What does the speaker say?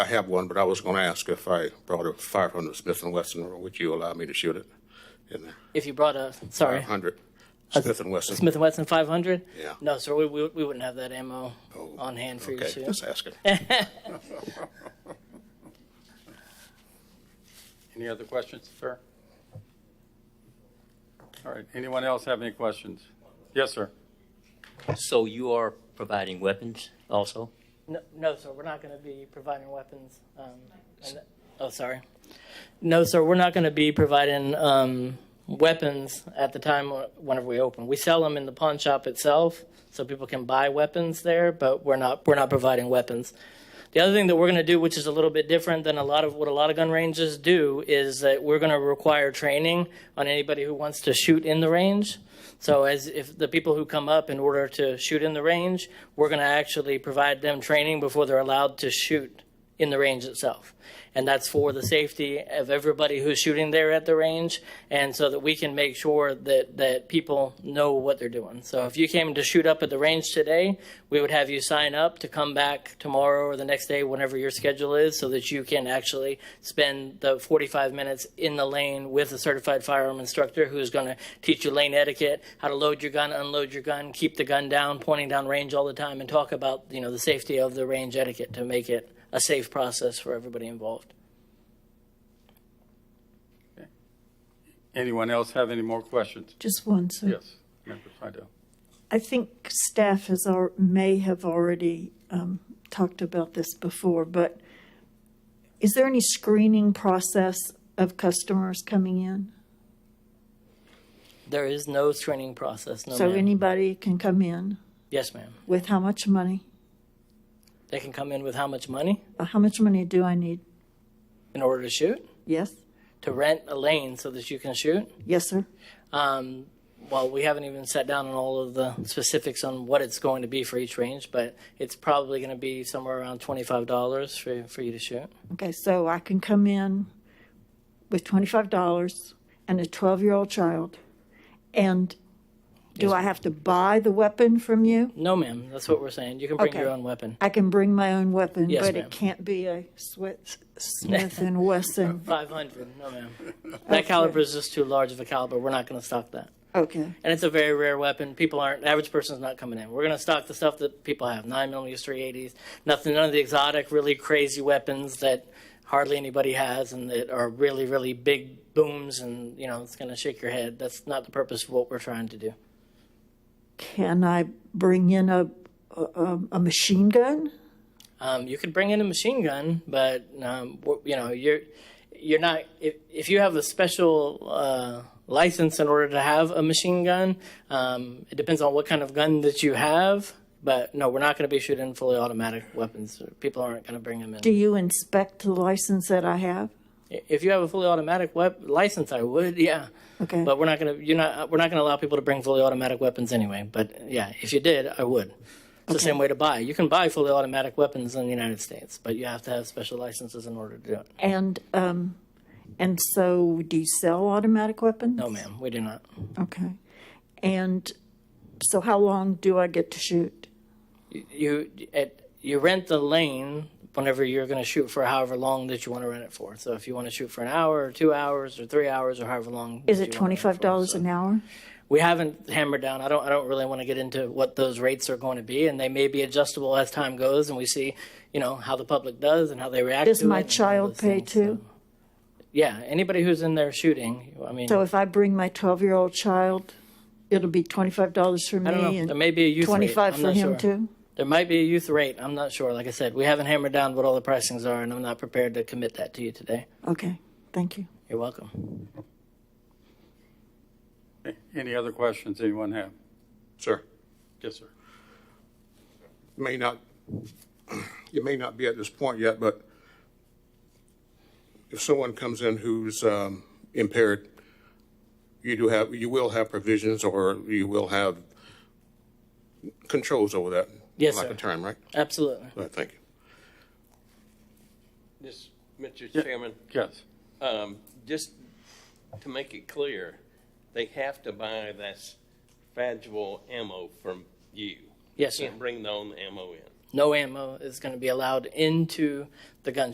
I have one, but I was going to ask if I brought a 500 Smith & Wesson, or would you allow me to shoot it in there? If you brought a sorry 500 Smith & Wesson. Smith and Wesson 500, Uh-huh. Yeah. no, sir, we, we we wouldn't have that ammo Oh, on hand for you Okay, to just shoot. Eh. asking. Any other questions, sir? All right, anyone else have any questions? Yes, sir. So you are providing weapons also? No, no, sir, we're not going to be providing weapons. Um, and, oh, sorry. No, sir, we're not going to be providing um, weapons at the time wh- whenever we open. We sell them in the pawn shop itself, so people can buy weapons there, but we're not we're not providing weapons. The other thing that we're going to do, which is a little bit different than a lot of what a lot of gun ranges do, is that we're going to require training on anybody who wants to shoot in the range. So as if the people who come up in order to shoot in the range, we're going to actually provide them training before they're allowed to shoot in the range itself. And that's for the safety of everybody who's shooting there at the range and so that we can make sure that, that people know what they're doing. So if you came to shoot up at the range today, we would have you sign up to come back tomorrow or the next day, whenever your schedule is, so that you can actually spend the 45 minutes in the lane with a certified firearm instructor who's going to teach you lane etiquette, how to load your gun, unload your gun, keep the gun down, pointing down range all the time, and talk about, you know, the safety of the range etiquette to make it a safe process for everybody involved. Anyone else have any more questions? Just one, sir. Yes, Member Frydell. I think staff has, al- may have already um, talked about this before, but is there any screening process of customers coming in? There is no screening process. No, So ma'am. anybody can come in yes, ma'am. with how much money? They can come in with how much money Uh, How much money do I need? in order to shoot, Yes? to rent a lane so that you can shoot. Yes, sir? Um, well, we haven't even sat down on all of the specifics on what it's going to be for each range, but it's probably going to be somewhere around twenty-five dollars for for you to shoot. Okay, so I can come in with $25 and a 12 year old child. And do I have to buy the weapon from you? No, ma'am. That's what we're saying. You can bring Okay. your own weapon. I can bring my own weapon, Yes, but ma'am. it can't be a Swi- Smith and Wesson. Five hundred. No, ma'am. That caliber is just too large of a caliber. We're not going to stock that. Okay, and it's a very rare weapon. People aren't average person's not coming in. We're gonna stock the stuff that people have: nine millimeters, three eighties, nothing, none of the exotic, really crazy weapons that hardly anybody has and that are really, really big booms and you know it's gonna shake your head. That's not the purpose of what we're trying to do. can I bring in a a, a- a machine gun? Um, you could bring in a machine gun, but um, wh- you know you're you're not if, if you have a special uh, license in order to have a machine gun. Um, it depends on what kind of gun that you have, but no, we're not going to be shooting fully automatic weapons. People aren't going to bring them in. Do you inspect the license that I have? If you have a fully automatic wep- license, I would, yeah. Okay. But we're not going to you're not we're not going to allow people to bring fully automatic weapons anyway. But yeah, if you did, I would. It's the same way to buy. You can buy fully automatic weapons in the United States, but you have to have special licenses in order to do it. And um, and so do you sell automatic weapons? No, ma'am, we do not. Okay, and so how long do I get to shoot? You at, you rent the lane whenever you're going to shoot for however long that you want to rent it for. So if you want to shoot for an hour or two hours or three hours or however long, Is that it you wanna twenty rent for. five dollars an hour? we haven't hammered down. I don't. I don't really want to get into what those rates are going to be, and they may be adjustable as time goes, and we see, you know, how the public does and how they react. Does to it my and all child those pay things. too? Yeah, anybody who's in there shooting. I mean, So if I bring my twelve year old child, it'll be twenty five dollars for me I don't know. and There may be a youth rate. twenty five I'm for not him sure. too. There might be a youth rate. I'm not sure. Like I said, we haven't hammered down what all the pricings are, and I'm not prepared to commit that to you today. Okay, thank you. You're welcome. Any other questions anyone have? Sir, Yes, sir. may not, you may not be at this point yet, but if someone comes in who's um, impaired, you do have, you will have provisions or you will have controls over that. Yes, Like sir. a term, right? Absolutely. All right, thank you. Just, Mr. Chairman, Yes. um, just to make it clear, they have to buy this fragile ammo from you. Yes, sir. Can't bring their own ammo in. No ammo is going to be allowed into the gun